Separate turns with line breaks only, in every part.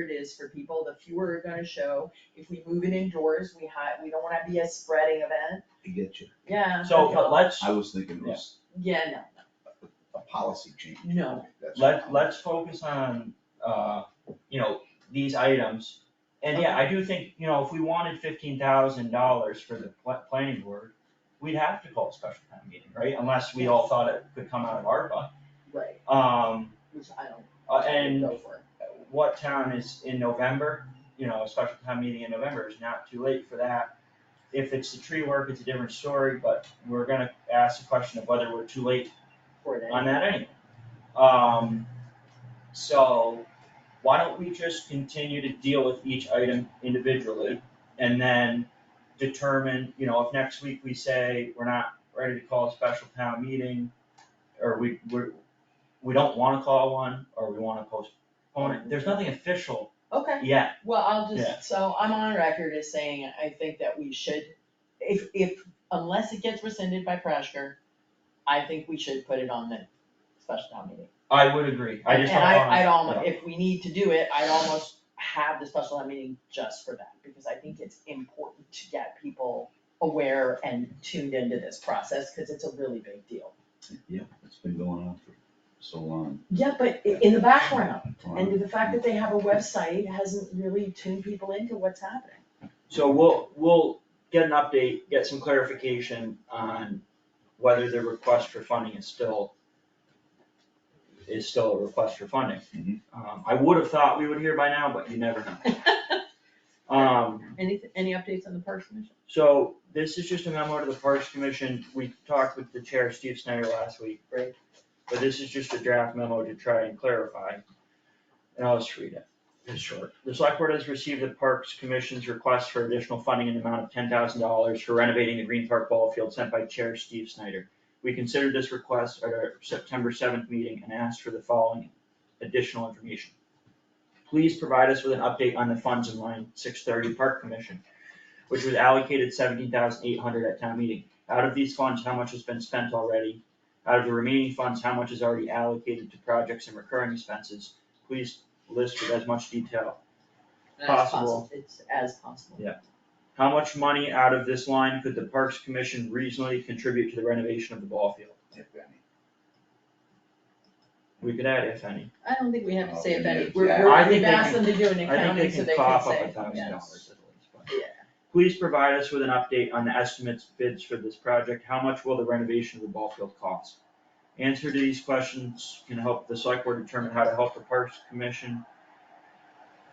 it is for people, the fewer are gonna show. If we move it indoors, we ha- we don't wanna be a spreading event,
I get you.
yeah.
So, uh, but let's,
I was thinking it was
Yeah,
a policy change.
No.
That's-
let, let's focus on, uh, you know, these items. And yeah, I do think, you know, if we wanted fifteen thousand dollars for the pla- planning board, we'd have to call a special town meeting, right? Unless we all thought it could come out of ARPA.
no, right,
Um,
which I don't.
uh, and
Go for it.
what town is in November, you know, a special town meeting in November is not too late for that. If it's the tree work, it's a different story, but we're gonna ask the question of whether we're too late
for it.
on that anyway. Um, so why don't we just continue to deal with each item individually? And then determine, you know, if next week we say we're not ready to call a special town meeting, or we, we're, we don't wanna call one, or we wanna postpone it, there's nothing official
Okay.
yet.
Well, I'll
Yeah.
just, so I'm on record as saying I think that we should, if, if, unless it gets rescinded by Prashker, I think we should put it on the special town meeting.
I would agree, I just don't
And
wanna.
I, I'd almost,
yeah.
if we need to do it, I'd almost have the special town meeting just for that, because I think it's important to get people aware and tuned into this process, cause it's a really big deal.
Yeah, it's been going on for so long.
Yeah, but i- in the background,
Well,
and the fact that they have a website hasn't really tuned people into what's happening.
So we'll, we'll get an update, get some clarification on whether the request for funding is still, is still a request for funding.
Mhm.
Um, I would have thought we would hear by now, but you never know. Um,
Any, any updates on the Parks Commission?
so this is just a memo to the Parks Commission. We talked with the chair, Steve Snyder, last week.
Right.
But this is just a draft memo to try and clarify. And I'll just read it. It's short. The select board has received the Parks Commission's request for additional funding in the amount of ten thousand dollars for renovating the Green Park Ball Field sent by Chair Steve Snyder. We considered this request at our September seventh meeting and asked for the following additional information. Please provide us with an update on the funds in line six thirty Park Commission, which was allocated seventeen thousand eight hundred dollars at town meeting. Out of these funds, how much has been spent already? Out of the remaining funds, how much is already allocated to projects and recurring expenses? Please list with as much detail
As
Possible.
It's as possible.
How much money out of this line could the Parks Commission reasonably contribute to the renovation of the ball field?
if any.
We could add if any.
I don't think we have to say if any,
Okay,
we're,
yeah.
I
we're,
think
we've
they
asked
can-
them to do an
I
accounting
think
so
they
they can
can cough up a
say,
thousand
yes.
dollars at least, but.
Yeah.
Please provide us with an update on the estimates bids for this project. How much will the renovation of the ball field cost? Answer to these questions can help the select board determine how to help the Parks Commission.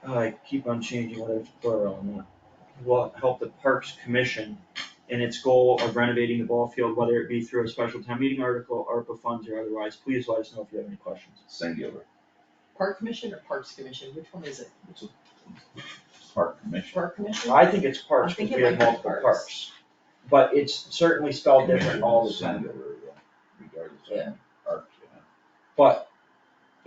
I keep on changing whether it's plural or not. Will help the Parks Commission in its goal of renovating the ball field, whether it be through a special town meeting article, ARPA funds or otherwise. Please let us know if you have any questions.
Singular,
Park Commission or Parks Commission, which one is it?
it's a park commission.
Park Commission?
I think it's
I
parks,
think
because
it
we
might
have
be
multiple
parks.
parks. But it's certainly spelled different all the time.
Singular, yeah, regardless
Yeah.
of park, you know.
But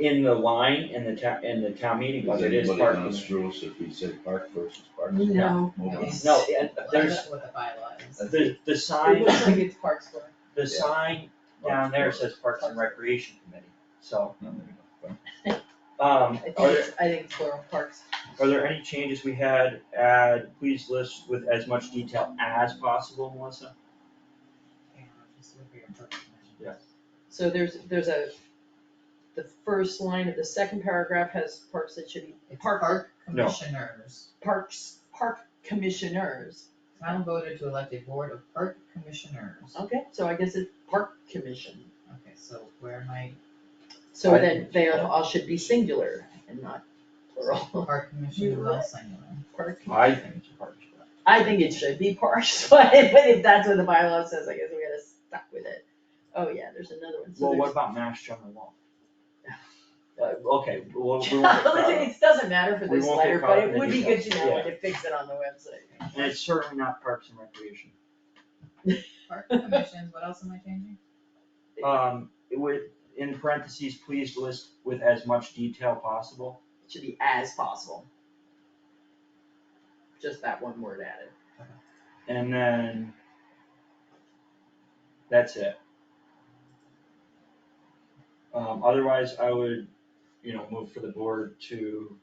in the line, in the town, in the town meeting
Is
budget, it is
anybody on
parking.
the rules if we say park versus park?
Mm-hmm.
No.
Move on.
No, and there's,
That's what the bylaw is.
the, the
It
sign,
looks like it's Parks for,
the sign down there says Parks and Recreation Committee, so,
No, there you go.
um,
I think
are there,
it's, I think it's for Parks.
are there any changes we had, add, please list with as much detail as possible, Melissa?
This would be a perfect measure.
So there's, there's a, the first line of the second paragraph has parks that should be
It's
Park-
park
No.
commissioners,
parks, park commissioners.
town voted to elect a board of park commissioners.
Okay, so I guess it's Park Commission.
Okay, so where am I,
So
I-
then they are- all should be singular and not plural.
park commissioner,
You-
well, singular.
Park
I think it's Parks.
I think it should be parks, but, but if that's what the bylaw says, I guess we gotta stuck with it. Oh, yeah, there's another one, so
Well, what
there's.
about Mass General law? Uh, okay, well, we won't get caught up.
It doesn't matter for
We
this
won't get
letter,
caught
but
up in
it
the
would be good to
details,
know
yeah.
and to fix it on the website.
and it's certainly not Parks and Recreation.
Park commissions, what else am I changing?
Um, it would, in parentheses, please list with as much detail possible.
It Should be as possible. Just that one word added.
And then that's it. Um, otherwise, I would, you know, move for the board to